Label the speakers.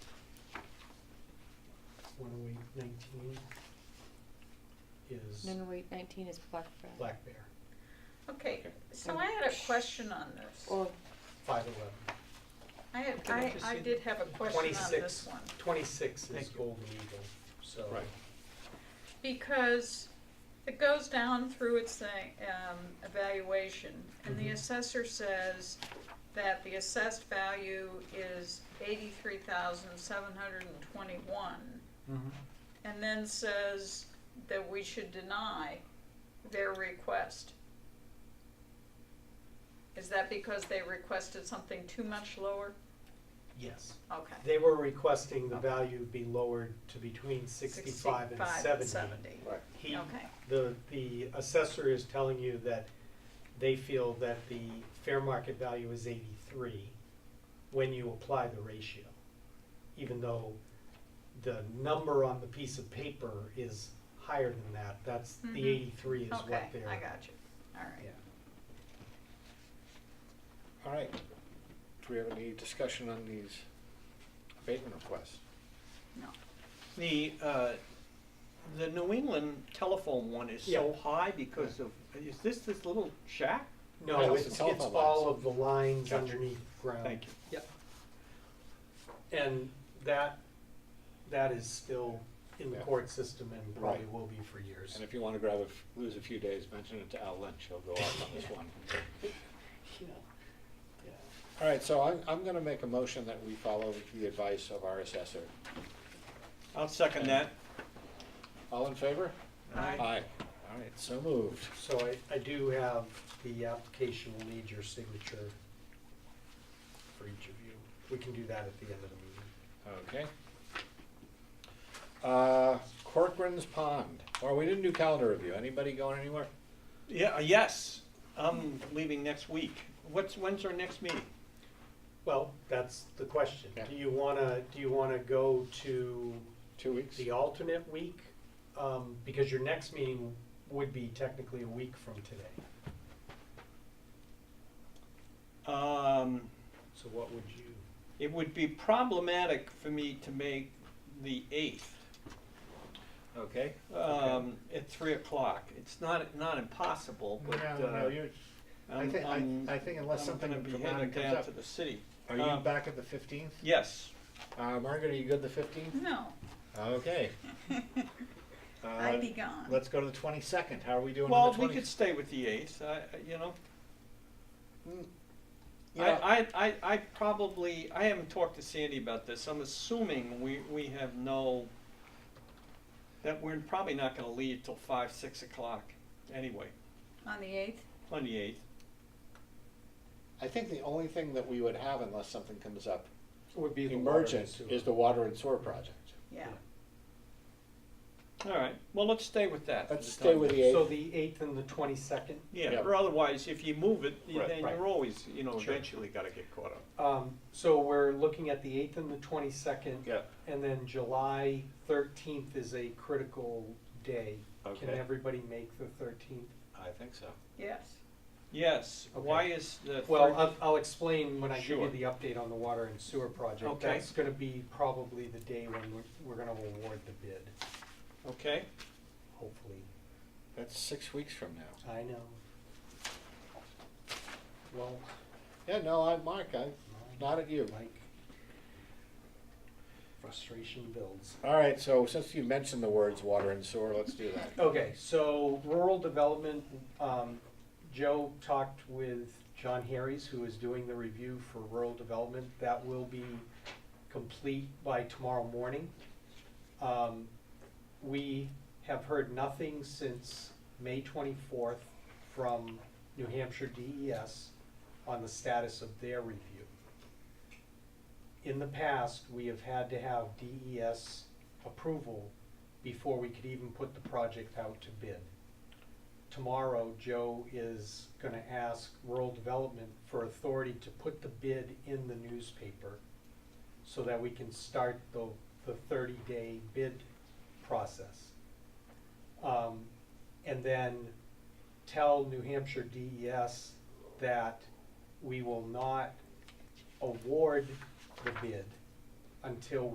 Speaker 1: one oh eight nineteen is
Speaker 2: No, no, wait, nineteen is Black Bear.
Speaker 1: Black Bear,
Speaker 3: Okay,
Speaker 4: Okay.
Speaker 3: so I had a question on this.
Speaker 2: Or,
Speaker 1: five eleven.
Speaker 3: I had,
Speaker 4: I
Speaker 3: I,
Speaker 4: just
Speaker 3: I
Speaker 4: see-
Speaker 3: did have a question on this
Speaker 1: Twenty-six,
Speaker 3: one.
Speaker 1: twenty-six is
Speaker 4: Thank you.
Speaker 1: Golden Eagle, so.
Speaker 4: Right.
Speaker 3: Because it goes down through its thing, um, evaluation, and the
Speaker 1: Mhm.
Speaker 3: assessor says that the assessed value is eighty-three thousand seven hundred and twenty-one.
Speaker 4: Mm-hmm.
Speaker 3: and then says that we should deny their request. Is that because they requested something too much lower?
Speaker 1: Yes,
Speaker 3: Okay.
Speaker 1: they were requesting the value be lowered to between sixty-five and seventy.
Speaker 4: Right.
Speaker 1: He,
Speaker 3: Okay.
Speaker 1: the, the assessor is telling you that they feel that the fair market value is eighty-three when you apply the ratio, even though the number on the piece of paper is higher than that, that's,
Speaker 3: Mhm.
Speaker 1: the eighty-three is what
Speaker 3: Okay,
Speaker 1: they're.
Speaker 3: I got you. All right.
Speaker 1: Yeah.
Speaker 4: All right. Do we have any discussion on these abatement requests?
Speaker 3: No.
Speaker 5: The, uh, the New England telephone one is so high because of, is this this little shack?
Speaker 4: No,
Speaker 1: No, it's,
Speaker 4: it's
Speaker 1: it's
Speaker 4: the telephone
Speaker 1: all
Speaker 4: lines.
Speaker 1: of the lines
Speaker 4: Gotcha.
Speaker 1: underneath ground.
Speaker 5: Thank you.
Speaker 1: Yep. And that, that is still in the
Speaker 4: Yeah.
Speaker 1: court system and probably
Speaker 4: Right.
Speaker 1: will be for years.
Speaker 4: And if you want to grab a, f- lose a few days, mention it to Al Lynch, he'll go off on this one.
Speaker 1: Yeah. Yeah.
Speaker 4: All right, so I'm, I'm going to make a motion that we follow the advice of our assessor.
Speaker 5: I'll second that.
Speaker 4: All in favor?
Speaker 3: Aye.
Speaker 4: Aye. All right, so moved.
Speaker 1: So I, I do have the application will need your signature for each of you. We can do that at the end of the meeting.
Speaker 4: Okay. Uh, Corcoran's Pond. Or we didn't do calendar review. Anybody going anywhere?
Speaker 5: Yeah, yes, I'm leaving next week. What's, when's our next meeting?
Speaker 1: Well, that's the question.
Speaker 4: Yeah.
Speaker 1: Do you wanna, do you wanna go to
Speaker 4: Two weeks?
Speaker 1: the alternate week? Um, because your next meeting would be technically a week from today.
Speaker 5: Um,
Speaker 1: So what would you?
Speaker 5: it would be problematic for me to make the eighth,
Speaker 4: Okay.
Speaker 5: um, at three o'clock. It's not, not impossible, but,
Speaker 6: No, no,
Speaker 5: uh,
Speaker 6: you're, I
Speaker 5: I'm,
Speaker 6: think,
Speaker 5: I'm,
Speaker 6: I, I think unless
Speaker 5: I'm gonna
Speaker 6: something
Speaker 5: be headed
Speaker 6: dramatic
Speaker 5: down
Speaker 6: comes
Speaker 5: to
Speaker 6: up.
Speaker 5: the city.
Speaker 4: Are
Speaker 6: Are
Speaker 5: um,
Speaker 6: you back at the fifteenth?
Speaker 5: Yes,
Speaker 4: Uh, Margaret, are you good the fifteenth?
Speaker 3: No,
Speaker 4: Okay. Uh,
Speaker 3: I'd be gone.
Speaker 4: Let's go to the twenty-second. How are we doing on
Speaker 5: Well,
Speaker 4: the
Speaker 5: we could
Speaker 4: twentieth?
Speaker 5: stay with the eighth, I, I- you know.
Speaker 4: Mm.
Speaker 5: I, I, I, I probably, I haven't talked to Sandy about this, I'm assuming we, we have no, that we're probably not gonna leave till five, six o'clock, anyway,
Speaker 3: On the eighth?
Speaker 5: on the eighth.
Speaker 4: I think the only thing that we would have unless something comes up
Speaker 1: Would be the water and
Speaker 4: emergent
Speaker 1: sewer.
Speaker 4: is the water and sewer project.
Speaker 3: Yeah.
Speaker 5: All right, well, let's stay with that. for
Speaker 4: Let's
Speaker 5: the
Speaker 4: stay
Speaker 5: time
Speaker 4: with
Speaker 5: being.
Speaker 4: the
Speaker 1: So
Speaker 4: eighth.
Speaker 1: the eighth and the twenty-second?
Speaker 5: Yeah,
Speaker 4: Yeah.
Speaker 5: or otherwise, if you move it,
Speaker 4: Right,
Speaker 5: then
Speaker 1: right.
Speaker 5: you're always, you know,
Speaker 4: Sure.
Speaker 5: eventually gotta get caught up.
Speaker 1: Um, so we're looking at the eighth and the twenty-second.
Speaker 4: Yeah,
Speaker 1: And then July thirteenth is a critical day. Can
Speaker 4: Okay.
Speaker 1: everybody make the thirteenth?
Speaker 4: I think so.
Speaker 3: Yes.
Speaker 5: Yes,
Speaker 1: Okay.
Speaker 5: why is the?
Speaker 1: Well,
Speaker 5: third-
Speaker 1: I'll, I'll explain when I give you
Speaker 5: Sure.
Speaker 1: the update on the water and sewer project.
Speaker 5: Okay.
Speaker 1: That's gonna be probably the day when we're, we're gonna award the bid,
Speaker 5: Okay,
Speaker 1: hopefully.
Speaker 4: That's six weeks from now.
Speaker 1: I know. Well,
Speaker 4: Yeah, no, I, Mark, I, not at you.
Speaker 1: like, frustration builds.
Speaker 4: All right, so since you mentioned the words water and sewer, let's do that.
Speaker 1: Okay, so rural development, um, Joe talked with John Harries, who is doing the review for rural development. That will be complete by tomorrow morning. Um, we have heard nothing since May twenty-fourth from New Hampshire DES on the status of their review. In the past, we have had to have DES approval before we could even put the project out to bid. Tomorrow, Joe is gonna ask rural development for authority to put the bid in the newspaper so that we can start the, the thirty-day bid process. Um, and then tell New Hampshire DES that we will not award the bid until